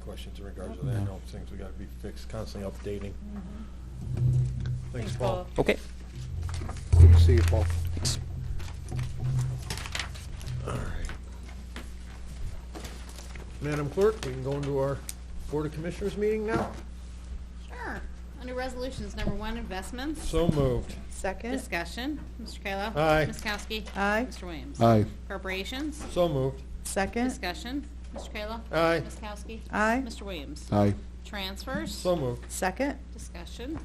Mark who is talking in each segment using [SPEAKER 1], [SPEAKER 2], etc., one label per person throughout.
[SPEAKER 1] questions in regards to that, you know, things we gotta be fixed, constantly updating. Mm-hmm. Thanks, Paul.
[SPEAKER 2] Okay.
[SPEAKER 1] Good to see you, Paul.
[SPEAKER 2] Thanks.
[SPEAKER 1] Madam Clerk, we can go into our Board of Commissioners meeting now?
[SPEAKER 3] Sure. Under resolutions, number one, investments.
[SPEAKER 1] So moved.
[SPEAKER 4] Second.
[SPEAKER 3] Discussion. Mr. Kayla.
[SPEAKER 1] Aye.
[SPEAKER 3] Ms. Kowski.
[SPEAKER 4] Aye.
[SPEAKER 3] Mr. Williams.
[SPEAKER 5] Aye.
[SPEAKER 3] Appropriations.
[SPEAKER 1] So moved.
[SPEAKER 4] Second.
[SPEAKER 3] Discussion. Mr. Kayla.
[SPEAKER 1] Aye.
[SPEAKER 3] Ms. Kowski.
[SPEAKER 4] Aye.
[SPEAKER 3] Mr. Williams.
[SPEAKER 5] Aye.
[SPEAKER 3] Transfers.
[SPEAKER 1] So moved.
[SPEAKER 4] Second.
[SPEAKER 3] Discussion.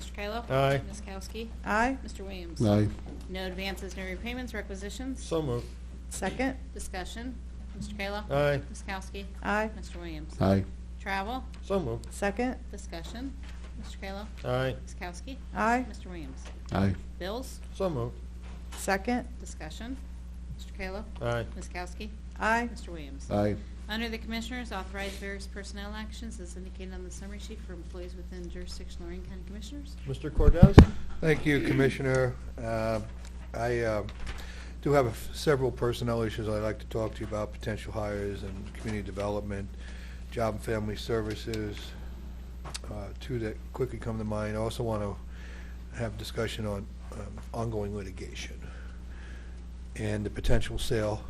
[SPEAKER 3] Mr. Kayla.
[SPEAKER 1] Aye.
[SPEAKER 3] Ms. Kowski.
[SPEAKER 4] Aye.
[SPEAKER 3] Mr. Williams.
[SPEAKER 5] Aye.
[SPEAKER 3] No advances, no repayments, requisitions.
[SPEAKER 1] So moved.
[SPEAKER 4] Second.
[SPEAKER 3] Discussion. Mr. Kayla.
[SPEAKER 1] Aye.
[SPEAKER 3] Ms. Kowski.
[SPEAKER 4] Aye.
[SPEAKER 3] Mr. Williams.
[SPEAKER 5] Aye.
[SPEAKER 3] Travel.
[SPEAKER 1] So moved.
[SPEAKER 4] Second.
[SPEAKER 3] Discussion. Mr. Kayla.
[SPEAKER 1] Aye.
[SPEAKER 3] Ms. Kowski.
[SPEAKER 4] Aye.
[SPEAKER 3] Mr. Williams.
[SPEAKER 5] Aye.
[SPEAKER 3] Bills.
[SPEAKER 1] So moved.
[SPEAKER 4] Second.
[SPEAKER 3] Discussion. Mr. Kayla.
[SPEAKER 1] Aye.
[SPEAKER 3] Ms. Kowski.
[SPEAKER 4] Aye.
[SPEAKER 3] Mr. Williams.
[SPEAKER 5] Aye.
[SPEAKER 3] Under the Commissioners, authorize various personnel actions as indicated on the summary sheet for employees within jurisdiction Lorraine County Commissioners.
[SPEAKER 1] Mr. Cordez?
[SPEAKER 6] Thank you, Commissioner. Uh, I uh, do have a f- several personnel issues I'd like to talk to you about, potential hires and community development, job and family services, uh, two that quickly come to mind. I also want to have discussion on um, ongoing litigation and the potential sale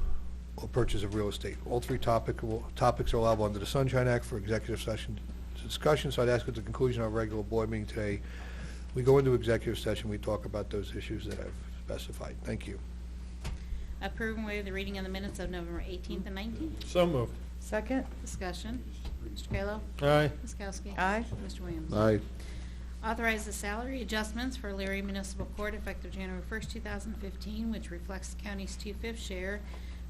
[SPEAKER 6] or purchase of real estate. All three topic, topics are allowable under the Sunshine Act for executive session discussion, so I'd ask at the conclusion of our regular board meeting today, we go into executive session, we talk about those issues that I've specified. Thank you.
[SPEAKER 3] Approve and waive the reading of the minutes of November 18th and 19th.
[SPEAKER 1] So moved.
[SPEAKER 4] Second.
[SPEAKER 3] Discussion. Mr. Kayla.
[SPEAKER 1] Aye.
[SPEAKER 3] Ms. Kowski.
[SPEAKER 4] Aye.
[SPEAKER 3] Mr. Williams.
[SPEAKER 5] Aye.
[SPEAKER 3] Authorize the salary adjustments for Leary Municipal Court effective January 1st, 2015, which reflects the county's two-fifth share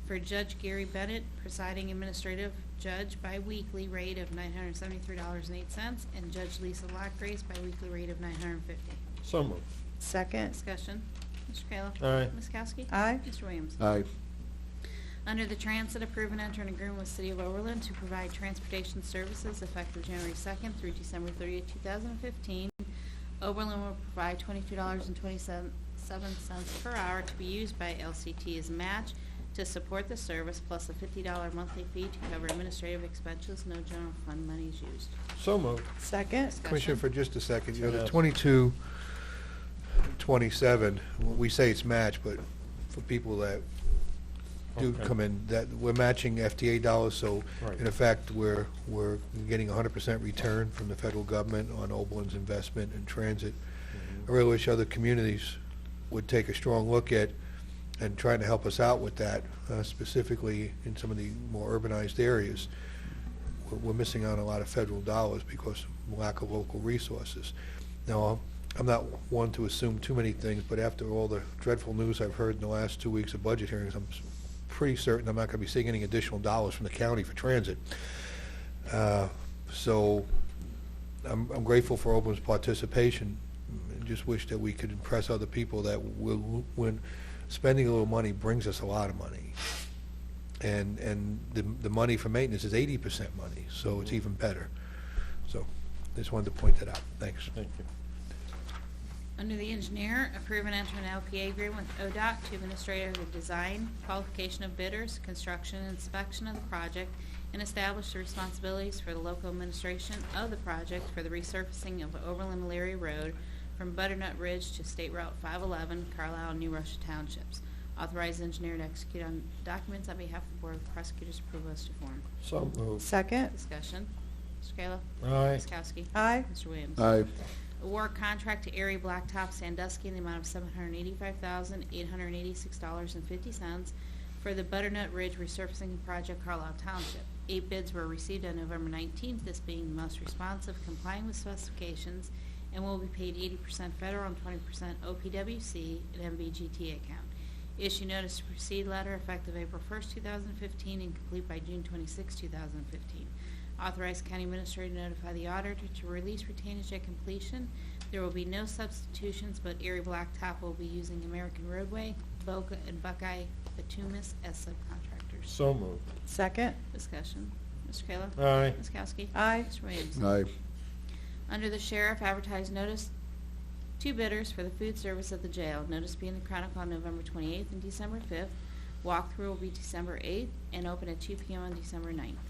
[SPEAKER 3] for Judge Gary Bennett, presiding administrative judge, biweekly rate of $973.08, and Judge Lisa Lockgrace, biweekly rate of $950.
[SPEAKER 1] So moved.
[SPEAKER 4] Second.
[SPEAKER 3] Discussion. Mr. Kayla.
[SPEAKER 1] Aye.
[SPEAKER 3] Ms. Kowski.
[SPEAKER 4] Aye.
[SPEAKER 3] Mr. Williams.
[SPEAKER 5] Aye.
[SPEAKER 3] Under the Transit, approve and enter an agreement with City of Overland to provide transportation services effective January 2nd through December 30th, 2015. Overland will provide $22.27 per hour to be used by LCT as a match to support the service, plus a $50 monthly fee to cover administrative expenses. No general fund money is used.
[SPEAKER 1] So moved.
[SPEAKER 4] Second.
[SPEAKER 6] Commissioner, for just a second, you know, the
[SPEAKER 1] Yes.
[SPEAKER 6] twenty-two, twenty-seven, we say it's matched, but for people that do
[SPEAKER 1] Okay.
[SPEAKER 6] come in, that, we're matching FTA dollars, so
[SPEAKER 1] Right.
[SPEAKER 6] in effect, we're, we're getting hundred percent return from the federal government on Oberlin's investment in transit. I really wish other communities would take a strong look at and trying to help us out with that, uh, specifically in some of the more urbanized areas. We're- We're missing out on a lot of federal dollars because of lack of local resources. Now, I'm- I'm not one to assume too many things, but after all the dreadful news I've heard in the last two weeks of budget hearings, I'm s- pretty certain I'm not going to be seeing any additional dollars from the county for transit. Uh, So I'm I'm grateful for Oberlin's participation. and Just wish that we could impress other people that we'll- when spending a little money brings us a lot of money. And, and the, the money for maintenance is eighty percent money, so
[SPEAKER 1] Mm-hmm.
[SPEAKER 6] it's even better. So just wanted to point that out. Thanks.
[SPEAKER 1] Thank you.
[SPEAKER 3] Under the engineer, approve and enter an LPA agreement with ODOT to administer the design, qualification of bidders, construction, and inspection of the project, and establish the responsibilities for the local administration of the project for the resurfacing of Overland Leary Road from Butternut Ridge to State Route 511, Carlisle, and New Russia Townships. Authorize engineer to execute on documents on behalf of the Board of Prosecutors' approval as to form.
[SPEAKER 1] So moved.
[SPEAKER 4] Second.
[SPEAKER 3] Discussion. Mr. Kayla.
[SPEAKER 1] Aye.
[SPEAKER 3] Ms. Kowski.
[SPEAKER 4] Aye.
[SPEAKER 3] Mr. Williams.
[SPEAKER 5] Aye.
[SPEAKER 3] Award contract to Erie Blacktop Sandusky in the amount of seven hundred eighty-five thousand, eight hundred eighty-six dollars and fifty cents for the Butternut Ridge Resurfacing Project Carlisle Township. Eight bids were received on November nineteenth, this being the most responsive, complying with specifications, and will be paid eighty percent federal and twenty percent OPWC and MVGT account. Issue notice to proceed letter effective April first, two thousand fifteen, and complete by June twenty-sixth, two thousand fifteen. Authorize county administrator to notify the auditor to release retainage at completion. There will be no substitutions, but Erie Blacktop will be using American Roadway, Boca, and Buckeye Batumis as subcontractors.
[SPEAKER 1] So moved.
[SPEAKER 4] Second.
[SPEAKER 3] Discussion. Mr. Kayla?
[SPEAKER 1] Aye.
[SPEAKER 3] Ms. Kowski?
[SPEAKER 4] Aye.
[SPEAKER 3] Mr. Williams?
[SPEAKER 5] Aye.
[SPEAKER 3] Under the sheriff, advertise notice Two bidders for the food service at the jail. Notice being the Chronicle on November 28th and December 5th. Walkthrough will be December 8th and open at 2 PM on December 9th.